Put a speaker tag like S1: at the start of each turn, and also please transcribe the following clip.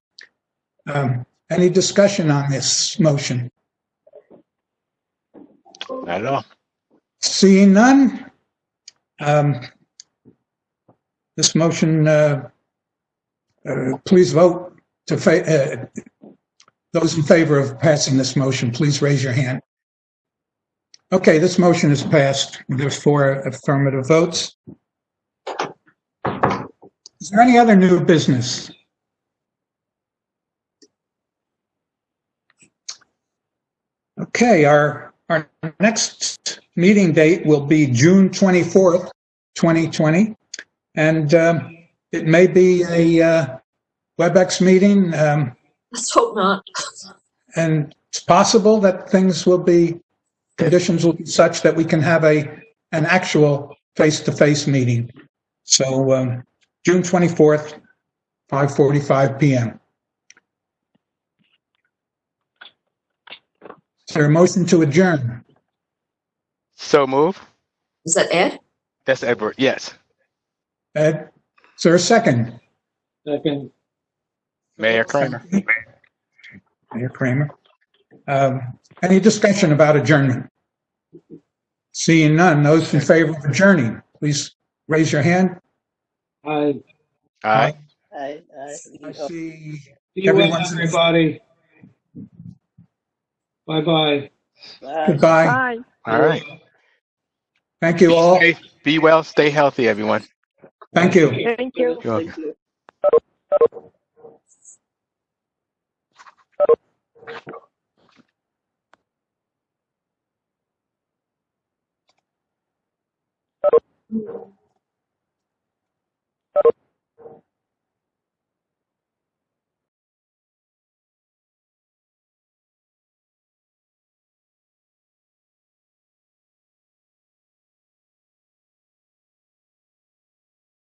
S1: Um, Any discussion on this motion?
S2: Not at all.
S1: Seeing none, um, this motion, uh, uh, please vote to, fa- uh, those in favor of passing this motion, please raise your hand. Okay, this motion is passed. There's four affirmative votes. Is there any other new business? Okay, our, our next meeting date will be June 24th, 2020. And um, it may be a uh, WebEx meeting, um,
S3: Let's hope not.
S1: and it's possible that things will be, conditions will be such that we can have a, an actual face-to-face meeting. So um, June 24th, 5:45 PM. Is there a motion to adjourn?
S2: So move.
S3: Is that Ed?
S2: That's Edward. Yes.
S1: Ed, is there a second?
S4: Second,
S2: Mayor Kramer.
S1: Mayor Kramer. Um, Any discussion about adjournment? Seeing none, those in favor of adjourning, please raise your hand.
S4: I
S2: All right.
S5: I, I,
S1: I see,
S4: see you,
S1: Everyone's-
S4: everybody. Bye-bye.
S5: I-
S1: goodbye.
S6: Bye.
S2: All right.
S1: Thank you all.
S2: Be safe, Be well. Stay healthy, everyone.
S1: Thank you.
S6: Thank you.
S2: You're welcome.